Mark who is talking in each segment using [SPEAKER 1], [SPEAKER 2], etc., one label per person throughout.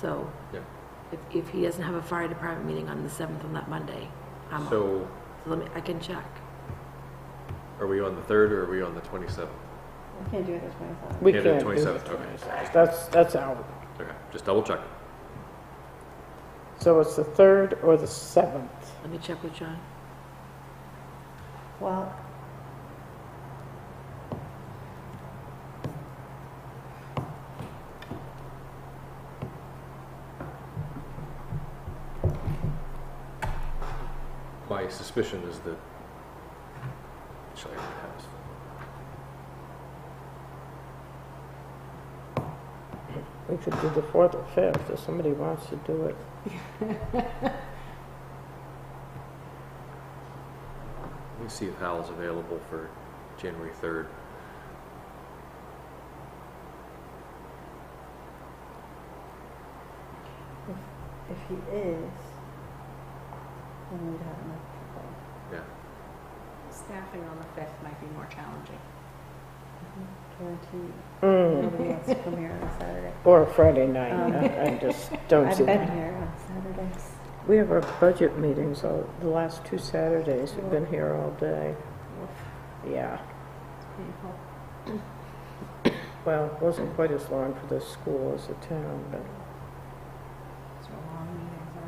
[SPEAKER 1] So
[SPEAKER 2] Yeah.
[SPEAKER 1] if, if he doesn't have a fire department meeting on the 7th on that Monday, I'm, so
[SPEAKER 2] So
[SPEAKER 1] let me, I can check.
[SPEAKER 2] are we on the 3rd or are we on the 27th?
[SPEAKER 3] We can't do it the twenty-seventh.
[SPEAKER 4] We
[SPEAKER 2] Yeah,
[SPEAKER 4] can't
[SPEAKER 2] the
[SPEAKER 4] do the
[SPEAKER 2] 27th, okay.
[SPEAKER 4] 27th. That's, that's out.
[SPEAKER 2] Okay, just double check.
[SPEAKER 4] So it's the 3rd or the 7th.
[SPEAKER 1] Let me check with John.
[SPEAKER 3] Well.
[SPEAKER 2] My suspicion is that, shall I have this?
[SPEAKER 4] We could do the 4th or 5th if somebody wants to do it.
[SPEAKER 2] Let me see if Hal's available for January 3rd.
[SPEAKER 3] If he is, then we'd have enough people.
[SPEAKER 2] Yeah,
[SPEAKER 5] Staffing on the 5th might be more challenging. Mm-hmm.
[SPEAKER 3] Guaranteed.
[SPEAKER 4] Mm.
[SPEAKER 3] Nobody wants to come here on Saturday.
[SPEAKER 4] Or a Friday night.
[SPEAKER 3] Mm-hmm. Um,
[SPEAKER 4] I I just don't see
[SPEAKER 3] I've been
[SPEAKER 4] that.
[SPEAKER 3] here on Saturdays.
[SPEAKER 4] We have our budget meetings all, the last two Saturdays. We've been here all day. Yeah.
[SPEAKER 3] It's painful.
[SPEAKER 4] Well, it wasn't quite as long for the school as the town, but,
[SPEAKER 5] So long meetings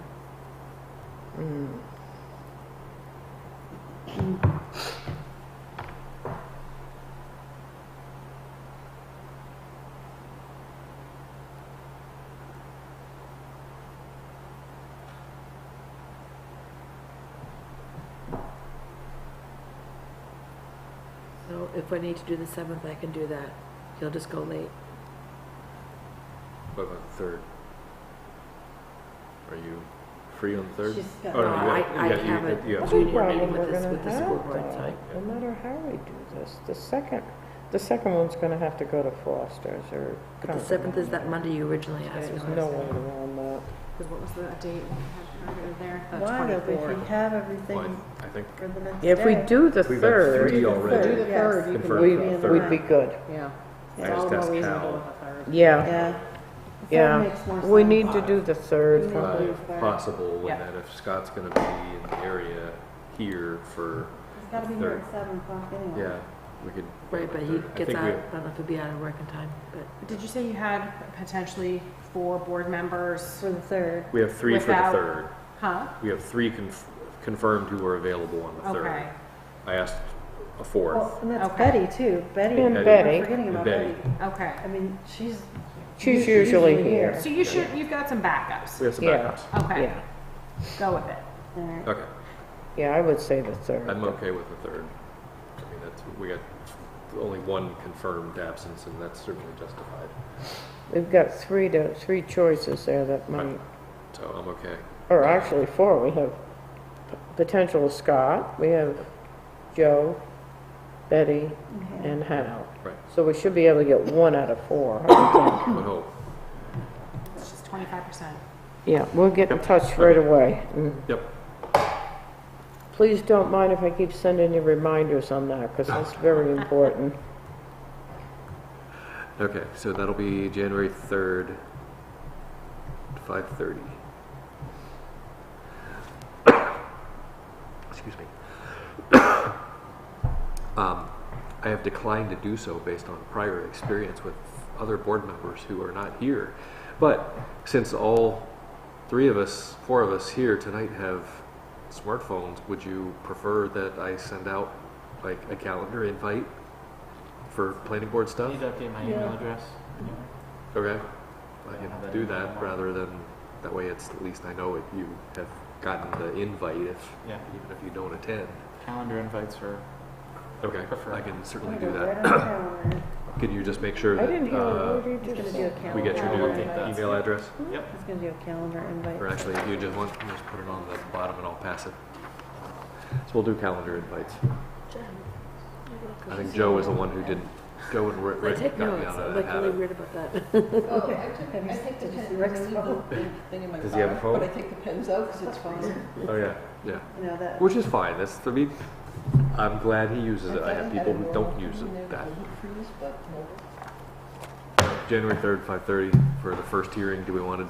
[SPEAKER 5] are.
[SPEAKER 4] mm.
[SPEAKER 1] So if I need to do the 7th, I can do that. He'll just go late.
[SPEAKER 2] what about the 3rd? Are you free on the 3rd?
[SPEAKER 3] She's got-
[SPEAKER 2] Oh, no,
[SPEAKER 1] Uh, I-
[SPEAKER 2] you
[SPEAKER 1] I
[SPEAKER 2] have, you have,
[SPEAKER 1] haven't.
[SPEAKER 2] you- you
[SPEAKER 4] That's
[SPEAKER 2] have.
[SPEAKER 4] a
[SPEAKER 1] Junior meeting
[SPEAKER 4] problem
[SPEAKER 1] with
[SPEAKER 4] we're
[SPEAKER 1] this-
[SPEAKER 4] gonna
[SPEAKER 1] with the
[SPEAKER 4] have,
[SPEAKER 1] school board,
[SPEAKER 4] though.
[SPEAKER 1] sorry.
[SPEAKER 4] No matter how we do this, the second, the second one's gonna have to go to Foster's or.
[SPEAKER 1] But the 7th is that Monday you originally asked
[SPEAKER 4] There's
[SPEAKER 1] me.
[SPEAKER 4] no way around that.
[SPEAKER 5] Because what was the date we had earlier there? The
[SPEAKER 3] Why don't we
[SPEAKER 5] 24th.
[SPEAKER 3] have
[SPEAKER 2] Well,
[SPEAKER 3] everything
[SPEAKER 2] I I think
[SPEAKER 3] for the next day?
[SPEAKER 4] If we do the
[SPEAKER 2] we've had
[SPEAKER 4] third,
[SPEAKER 2] three
[SPEAKER 3] Do the
[SPEAKER 2] already.
[SPEAKER 3] Yes.
[SPEAKER 5] third,
[SPEAKER 2] you can
[SPEAKER 4] we,
[SPEAKER 2] do the
[SPEAKER 4] we'd
[SPEAKER 2] third.
[SPEAKER 4] be good.
[SPEAKER 5] Yeah.
[SPEAKER 2] I
[SPEAKER 5] It's all
[SPEAKER 2] just
[SPEAKER 5] the
[SPEAKER 2] asked
[SPEAKER 5] reason to
[SPEAKER 2] Hal.
[SPEAKER 5] do it the 3rd.
[SPEAKER 4] Yeah,
[SPEAKER 3] Yeah.
[SPEAKER 4] Yeah.
[SPEAKER 3] That makes more sense.
[SPEAKER 4] we need to do the third.
[SPEAKER 3] Yeah.
[SPEAKER 2] uh,
[SPEAKER 3] If they're-
[SPEAKER 2] possible,
[SPEAKER 5] Yeah.
[SPEAKER 2] and that if Scott's gonna be in the area here for,
[SPEAKER 3] He's gotta be here at seven o'clock anyway.
[SPEAKER 2] yeah, we could.
[SPEAKER 1] Right, but he
[SPEAKER 2] I
[SPEAKER 1] gets
[SPEAKER 2] think
[SPEAKER 1] out,
[SPEAKER 2] we-
[SPEAKER 1] I don't know if he'll be out of work in time, but
[SPEAKER 5] Did you say you had potentially four board members?
[SPEAKER 3] For the third.
[SPEAKER 2] We have three for the
[SPEAKER 5] Without-
[SPEAKER 2] 3rd.
[SPEAKER 5] Huh?
[SPEAKER 2] We have three conf- confirmed who are available on the 3rd.
[SPEAKER 5] Okay,
[SPEAKER 2] I asked a fourth.
[SPEAKER 3] Well, and that's
[SPEAKER 5] Okay.
[SPEAKER 3] Betty too. Betty.
[SPEAKER 4] And
[SPEAKER 3] I'm
[SPEAKER 4] Betty.
[SPEAKER 3] Forgetting
[SPEAKER 2] And
[SPEAKER 3] about
[SPEAKER 2] Betty.
[SPEAKER 3] Betty.
[SPEAKER 5] okay.
[SPEAKER 3] I mean, she's.
[SPEAKER 4] She's usually here.
[SPEAKER 5] So you should, you've got some backups.
[SPEAKER 2] We have some
[SPEAKER 4] Yeah.
[SPEAKER 2] backups.
[SPEAKER 5] Okay,
[SPEAKER 4] Yeah,
[SPEAKER 5] go with it.
[SPEAKER 3] All right.
[SPEAKER 2] Okay,
[SPEAKER 4] yeah, I would say the third.
[SPEAKER 2] I'm okay with the 3rd. I mean, that's, we got only one confirmed absence, and that's certainly justified.
[SPEAKER 4] We've got three to, three choices there that might,
[SPEAKER 2] So I'm okay.
[SPEAKER 4] or actually four. We have p- potential Scott, we have Joe, Betty,
[SPEAKER 3] Okay.
[SPEAKER 4] and Hal.
[SPEAKER 2] Right.
[SPEAKER 4] So we should be able to get one out of four. I would think.
[SPEAKER 2] I would hope.
[SPEAKER 5] It's just 25%.
[SPEAKER 4] Yeah, we'll get in touch right away. Mm.
[SPEAKER 2] Yep.
[SPEAKER 4] Please don't mind if I keep sending you reminders on that, because that's very important.
[SPEAKER 2] Okay, so that'll be January 3rd, 5:30. Excuse me. Um, I have declined to do so based on prior experience with other board members who are not here. But since all three of us, four of us here tonight have smartphones, would you prefer that I send out like a calendar invite for planning board stuff?
[SPEAKER 6] Need to update my email
[SPEAKER 3] Yeah.
[SPEAKER 6] address.
[SPEAKER 2] Okay, I can do that rather than, that way it's, at least I know it, you have gotten the invite if,
[SPEAKER 6] Yeah.
[SPEAKER 2] even if you don't attend.
[SPEAKER 6] Calendar invites for.
[SPEAKER 2] Okay,
[SPEAKER 6] Prefer.
[SPEAKER 2] I can certainly
[SPEAKER 3] We'll
[SPEAKER 2] do
[SPEAKER 3] go right
[SPEAKER 2] that.
[SPEAKER 3] on the calendar.
[SPEAKER 2] Can you just make sure
[SPEAKER 4] I didn't
[SPEAKER 2] that,
[SPEAKER 4] hear
[SPEAKER 2] uh,
[SPEAKER 4] what you
[SPEAKER 3] He's gonna
[SPEAKER 4] just
[SPEAKER 3] do a
[SPEAKER 4] said.
[SPEAKER 3] calendar.
[SPEAKER 2] we get your
[SPEAKER 6] I think
[SPEAKER 2] new
[SPEAKER 6] that's-
[SPEAKER 2] email address?
[SPEAKER 6] Yep.
[SPEAKER 3] He's gonna do a calendar invite.
[SPEAKER 2] Or actually, you just want, just put it on the bottom and I'll pass it. So we'll do calendar invites. I think Joe was the one who didn't, Joe and Ri-
[SPEAKER 1] I
[SPEAKER 2] Rick
[SPEAKER 1] take
[SPEAKER 2] got me
[SPEAKER 1] notes, I'm
[SPEAKER 2] out of that
[SPEAKER 1] like really
[SPEAKER 2] habit.
[SPEAKER 1] weird about that.
[SPEAKER 7] Oh, I took,
[SPEAKER 3] Have you
[SPEAKER 7] I
[SPEAKER 3] s-
[SPEAKER 7] take the
[SPEAKER 3] did you
[SPEAKER 7] pen,
[SPEAKER 3] see
[SPEAKER 7] I
[SPEAKER 3] Rick's
[SPEAKER 7] leave
[SPEAKER 3] phone?
[SPEAKER 7] the big thing in my
[SPEAKER 2] Does he have a
[SPEAKER 7] phone,
[SPEAKER 2] phone?
[SPEAKER 7] But I take the pens out because it's fine.
[SPEAKER 2] Oh, yeah, yeah.
[SPEAKER 3] You know, that.
[SPEAKER 2] Which is fine, that's, I mean, I'm glad he uses it. I have people who don't use it, that. January 3rd, 5:30 for the first hearing. Do we want to